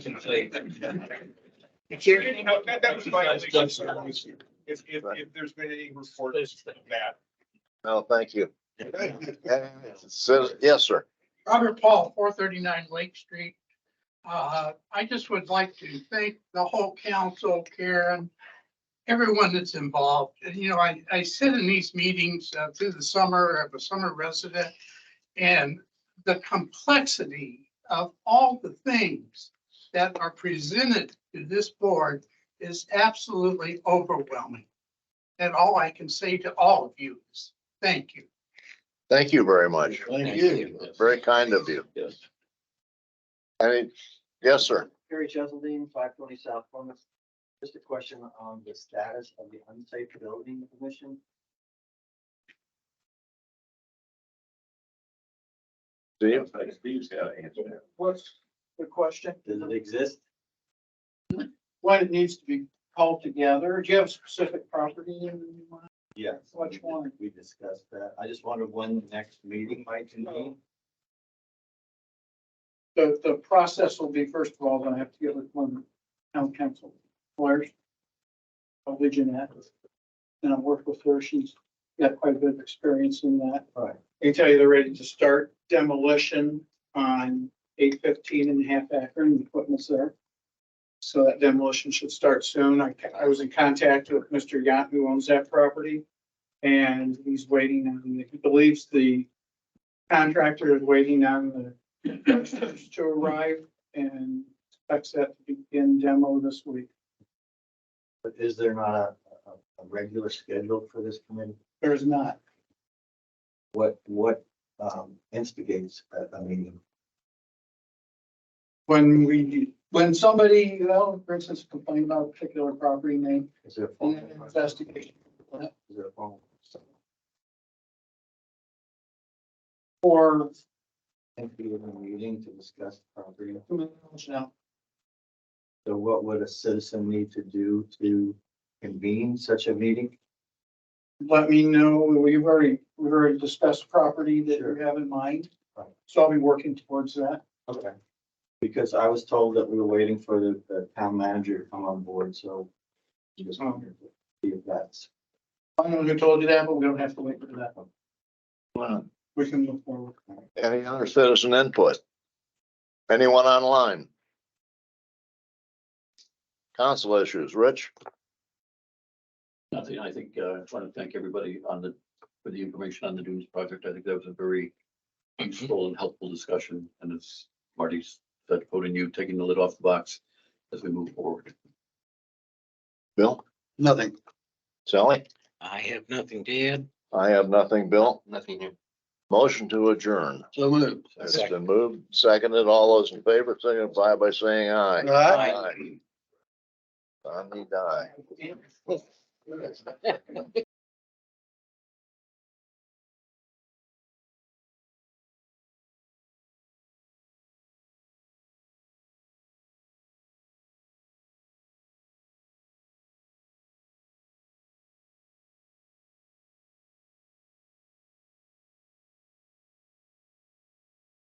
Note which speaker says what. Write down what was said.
Speaker 1: You know, that, that was my only concern was if, if, if there's been any reports of that.
Speaker 2: No, thank you. So, yes, sir.
Speaker 3: Robert Paul, four thirty-nine Lake Street. Uh, I just would like to thank the whole council, Karen, everyone that's involved. And, you know, I, I sit in these meetings uh, through the summer, I'm a summer resident, and the complexity of all the things that are presented to this board is absolutely overwhelming. And all I can say to all of you is, thank you.
Speaker 2: Thank you very much.
Speaker 4: Thank you.
Speaker 2: Very kind of you.
Speaker 4: Yes.
Speaker 2: Any, yes, sir.
Speaker 5: Harry Cheseldine, five twenty South Plymouth. Just a question on the status of the unsafe building commission.
Speaker 2: Steve?
Speaker 4: Steve's got to answer that.
Speaker 6: What's the question?
Speaker 5: Does it exist?
Speaker 6: What it needs to be called together? Do you have specific property in mind?
Speaker 5: Yes.
Speaker 6: Which one?
Speaker 5: We discussed that. I just wondered when the next meeting might convene.
Speaker 6: The, the process will be, first of all, gonna have to get with one of the town council lawyers. Probably Jeanette. And I've worked with her. She's got quite a bit of experience in that.
Speaker 5: Right.
Speaker 6: They tell you they're ready to start demolition on eight fifteen and a half acre and the equipment's there. So that demolition should start soon. I, I was in contact with Mr. Yant, who owns that property. And he's waiting on, he believes the contractor is waiting on the contractors to arrive and expects that to begin demo this week.
Speaker 5: But is there not a, a, a regular schedule for this committee?
Speaker 6: There's not.
Speaker 5: What, what, um, instigates a, a meeting?
Speaker 6: When we, when somebody, you know, for instance, complained about a particular property name,
Speaker 5: Is there a
Speaker 6: and
Speaker 5: phone?
Speaker 6: then an investigation
Speaker 5: Is there a phone?
Speaker 6: or
Speaker 5: Think we have a meeting to discuss the property?
Speaker 6: demolition out.
Speaker 5: So what would a citizen need to do to convene such a meeting?
Speaker 6: Let me know, we've already, we've already discussed property that you have in mind.
Speaker 5: Right.
Speaker 6: So I'll be working towards that.
Speaker 5: Okay. Because I was told that we were waiting for the, the town manager to come on board, so. Just wondered if that's.
Speaker 6: I don't know who told you that, but we don't have to wait for that. We can move forward.
Speaker 2: Any other citizen input? Anyone online? Council issues, Rich?
Speaker 4: Nothing, I think, uh, I want to thank everybody on the, for the information on the Dunes project. I think that was a very useful and helpful discussion, and it's Marty's, that vote and you taking the lid off the box as we move forward.
Speaker 2: Bill?
Speaker 7: Nothing.
Speaker 2: Sally?
Speaker 7: I have nothing to add.
Speaker 2: I have nothing, Bill.
Speaker 7: Nothing new.
Speaker 2: Motion to adjourn.
Speaker 7: So moved.
Speaker 2: It's been moved, seconded. All those in favor signify by saying aye.
Speaker 7: Aye.
Speaker 2: Aye. Donnie, die.